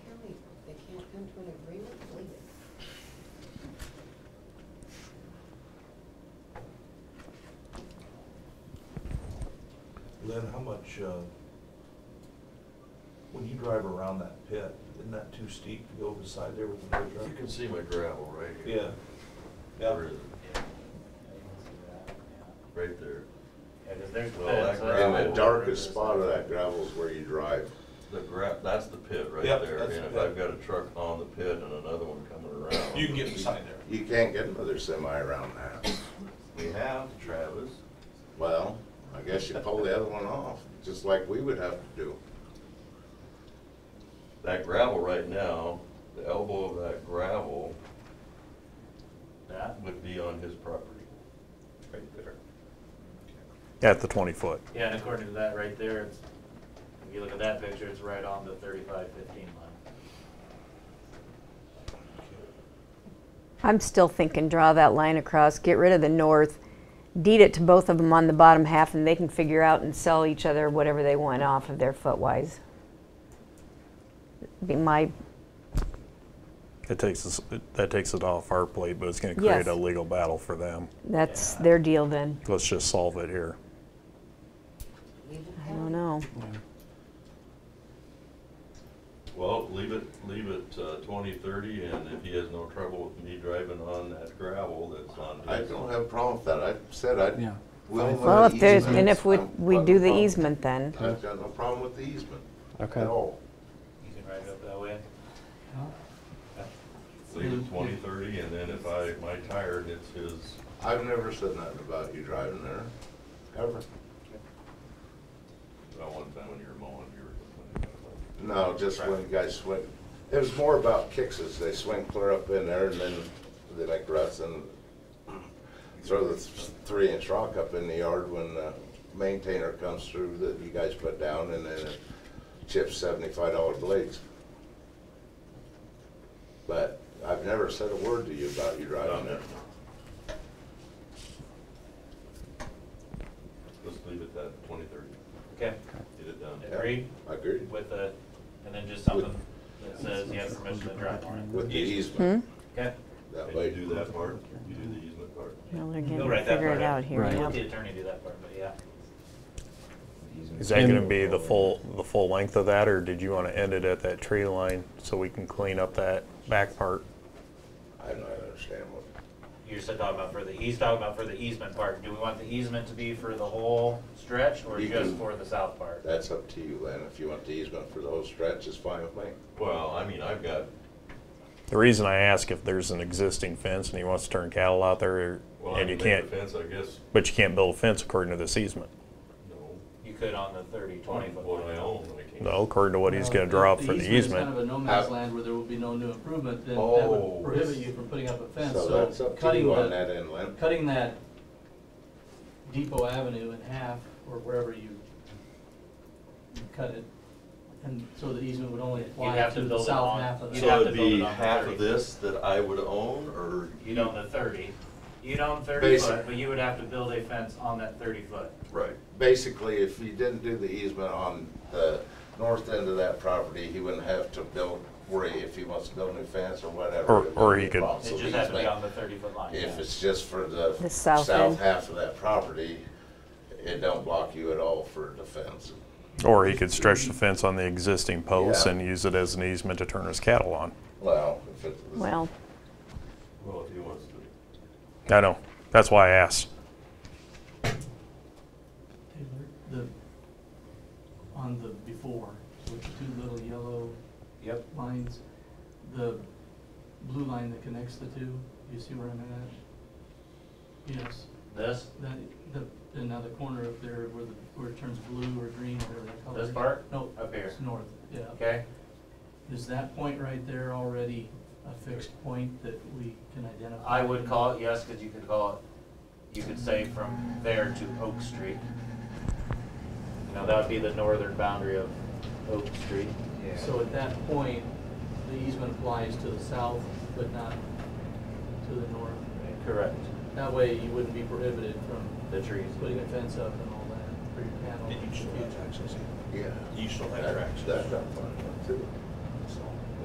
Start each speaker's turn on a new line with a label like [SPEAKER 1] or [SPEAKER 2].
[SPEAKER 1] Lynn, how much, uh, when you drive around that pit, isn't that too steep to go beside there with the tow
[SPEAKER 2] You can
[SPEAKER 1] truck?
[SPEAKER 2] see my gravel right
[SPEAKER 1] Yeah,
[SPEAKER 2] here.
[SPEAKER 1] yeah.
[SPEAKER 2] Where is it? Right there.
[SPEAKER 3] Yeah, cause there's
[SPEAKER 2] Well, that
[SPEAKER 3] beds.
[SPEAKER 4] And
[SPEAKER 2] gravel-
[SPEAKER 4] the darkest spot of that gravel is where you drive.
[SPEAKER 2] The gra, that's the pit right
[SPEAKER 1] Yep,
[SPEAKER 2] there. And
[SPEAKER 1] that's the
[SPEAKER 2] if
[SPEAKER 1] pit.
[SPEAKER 2] I've got a truck on the pit and another one coming around.
[SPEAKER 1] You can get beside there.
[SPEAKER 4] You can't get another semi around that.
[SPEAKER 2] We have Travis.
[SPEAKER 4] Well, I guess you pull the other one off, just like we would have to do.
[SPEAKER 2] That gravel right now, the elbow of that gravel
[SPEAKER 3] Yeah,
[SPEAKER 2] would be on his property, right there.
[SPEAKER 5] At the 20-foot.
[SPEAKER 3] Yeah, and according to that right there, it's, if you look at that picture, it's right on the thirty-five fifteen line.
[SPEAKER 6] I'm still thinking, draw that line across, get rid of the north, deed it to both of them on the bottom half, and they can figure out and sell each other whatever they want off of their footwise. Be my,
[SPEAKER 5] It takes us, it- that takes it off our plate, but it's going to
[SPEAKER 6] Yes.
[SPEAKER 5] create a legal battle for them.
[SPEAKER 6] that's
[SPEAKER 3] Yeah.
[SPEAKER 6] their deal then.
[SPEAKER 5] Let's just solve it here.
[SPEAKER 6] I don't know.
[SPEAKER 2] Well, leave it, leave it uh, twenty, thirty, and if he has no trouble with me driving on that gravel that's on his.
[SPEAKER 4] I don't have a problem with that. I said I'd.
[SPEAKER 7] Yeah.
[SPEAKER 4] we'll
[SPEAKER 6] Well,
[SPEAKER 4] let
[SPEAKER 6] if there's,
[SPEAKER 4] easements-
[SPEAKER 6] and if we,
[SPEAKER 4] I've
[SPEAKER 6] we
[SPEAKER 4] got
[SPEAKER 6] do
[SPEAKER 4] no
[SPEAKER 6] the
[SPEAKER 4] problem.
[SPEAKER 6] easement then.
[SPEAKER 4] I've got no problem with the easement
[SPEAKER 7] Okay.
[SPEAKER 4] at all.
[SPEAKER 3] You can ride it up that way.
[SPEAKER 2] Leave
[SPEAKER 5] Mm-hmm.
[SPEAKER 2] it twenty, thirty, and then if I, my tire hits his,
[SPEAKER 4] I've never said nothing about you driving there, ever.
[SPEAKER 2] well, one time when you were mowing, you were complaining about
[SPEAKER 4] No, just when guys swing, it was more about kicks as they swing clear up in there and then they make ruts and throw the three inch rock up in the yard when the maintainer comes through that you guys put down and then it chips seventy-five dollar blades. But I've never said a word to you about you driving there.
[SPEAKER 2] Let's leave it that twenty, thirty,
[SPEAKER 3] Okay,
[SPEAKER 2] get it done.
[SPEAKER 4] Yeah,
[SPEAKER 3] Agreed.
[SPEAKER 4] Agreed,
[SPEAKER 3] with a, and then just something that says you have permission to drive on
[SPEAKER 4] with the
[SPEAKER 6] Hmm?
[SPEAKER 4] easement,
[SPEAKER 3] it, okay?
[SPEAKER 4] that way.
[SPEAKER 2] And you do that part, you do the easement part.
[SPEAKER 6] Well, they're
[SPEAKER 3] Go
[SPEAKER 6] going to
[SPEAKER 3] write that
[SPEAKER 6] figure
[SPEAKER 3] part
[SPEAKER 6] it out here,
[SPEAKER 7] Right.
[SPEAKER 3] Let
[SPEAKER 6] yeah.
[SPEAKER 3] the attorney do that part, but yeah.
[SPEAKER 5] Is that going to be the full, the full length of that, or did you want to end it at that tree line so we can clean up that back part?
[SPEAKER 4] I don't understand what,
[SPEAKER 3] You're still talking about for the, he's talking about for the easement part. Do we want the easement to be for the whole stretch or
[SPEAKER 4] You
[SPEAKER 3] just
[SPEAKER 4] can-
[SPEAKER 3] for the south part?
[SPEAKER 4] that's up to you, Len, if you want the easement for the whole stretch, it's fine with me.
[SPEAKER 2] Well, I mean, I've got,
[SPEAKER 5] The reason I ask if there's an existing fence and he wants to turn cattle out there,
[SPEAKER 2] well, I
[SPEAKER 5] and you
[SPEAKER 2] can make
[SPEAKER 5] can't,
[SPEAKER 2] the fence, I guess,
[SPEAKER 5] but you can't build a fence according to this easement.
[SPEAKER 2] no,
[SPEAKER 3] You could on the thirty, twenty foot
[SPEAKER 2] what I
[SPEAKER 3] line.
[SPEAKER 2] own, I can't.
[SPEAKER 5] No, according to what he's
[SPEAKER 7] Uh,
[SPEAKER 5] going to draw up for the
[SPEAKER 7] It's kind of
[SPEAKER 5] easement.
[SPEAKER 7] a no man's land where there will be no new improvement, then that
[SPEAKER 2] Oh.
[SPEAKER 7] would prohibit you from putting up a fence,
[SPEAKER 4] So that's
[SPEAKER 7] so
[SPEAKER 4] up to
[SPEAKER 7] cutting
[SPEAKER 4] you on
[SPEAKER 7] the,
[SPEAKER 4] that end, Len.
[SPEAKER 7] cutting that Depot Avenue in half, or wherever you you cut it, and so the easement would only apply
[SPEAKER 3] have to
[SPEAKER 7] to the
[SPEAKER 3] build it
[SPEAKER 7] south
[SPEAKER 3] on-
[SPEAKER 7] half of
[SPEAKER 3] you'd
[SPEAKER 7] it.
[SPEAKER 3] have
[SPEAKER 2] So
[SPEAKER 3] to
[SPEAKER 2] it'd
[SPEAKER 3] build
[SPEAKER 2] be
[SPEAKER 3] it on
[SPEAKER 2] half of
[SPEAKER 3] thirty.
[SPEAKER 2] this that I would own, or?
[SPEAKER 3] You'd own the thirty. You'd own thirty
[SPEAKER 4] Basic.
[SPEAKER 3] foot, but you would have to build a fence on that thirty foot.
[SPEAKER 2] Right.
[SPEAKER 4] Basically, if you didn't do the easement on the north end of that property, he wouldn't have to build, worry if he wants to build a new fence or whatever.
[SPEAKER 5] Or-
[SPEAKER 4] it
[SPEAKER 5] or
[SPEAKER 4] wouldn't
[SPEAKER 5] he
[SPEAKER 4] be a
[SPEAKER 5] could-
[SPEAKER 4] problem. So
[SPEAKER 3] It just
[SPEAKER 4] the
[SPEAKER 3] has to be
[SPEAKER 4] easement,
[SPEAKER 3] on the thirty foot line.
[SPEAKER 4] If it's just for the
[SPEAKER 6] The south
[SPEAKER 4] south
[SPEAKER 6] end.
[SPEAKER 4] half of that property, it don't block you at all for the fence.
[SPEAKER 5] Or he could stretch the fence on the existing posts
[SPEAKER 4] Yeah.
[SPEAKER 5] and use it as an easement to turn his cattle on.
[SPEAKER 4] Well, if it was.
[SPEAKER 6] Well,
[SPEAKER 2] Well, if he wants to,
[SPEAKER 5] I know, that's why I asked.
[SPEAKER 7] The, on the before, with the two little yellow
[SPEAKER 3] Yep.
[SPEAKER 7] lines, the blue line that connects the two, you see where I'm at? Yes,
[SPEAKER 3] This,
[SPEAKER 7] that, the, another corner up there where the, where it turns blue or green, whatever that color.
[SPEAKER 3] This
[SPEAKER 7] is.
[SPEAKER 3] part?
[SPEAKER 7] No.
[SPEAKER 3] Up here.
[SPEAKER 7] It's north, yeah.
[SPEAKER 3] okay?
[SPEAKER 7] Is that point right there already a fixed point that we can identify?
[SPEAKER 3] I would call it, yes, cause you could call it, you could say from there to Oak Street. You know, that would be the northern boundary of Oak Street.
[SPEAKER 7] So at that point, the easement applies to the south, but not to the north.
[SPEAKER 3] Correct,
[SPEAKER 7] That way you wouldn't be prohibited from
[SPEAKER 3] the trees.
[SPEAKER 7] putting a fence up and all that for your cattle.
[SPEAKER 1] Then you still have access,
[SPEAKER 4] Yeah.
[SPEAKER 1] you still have
[SPEAKER 4] That-
[SPEAKER 1] access.
[SPEAKER 4] That's not fun, too.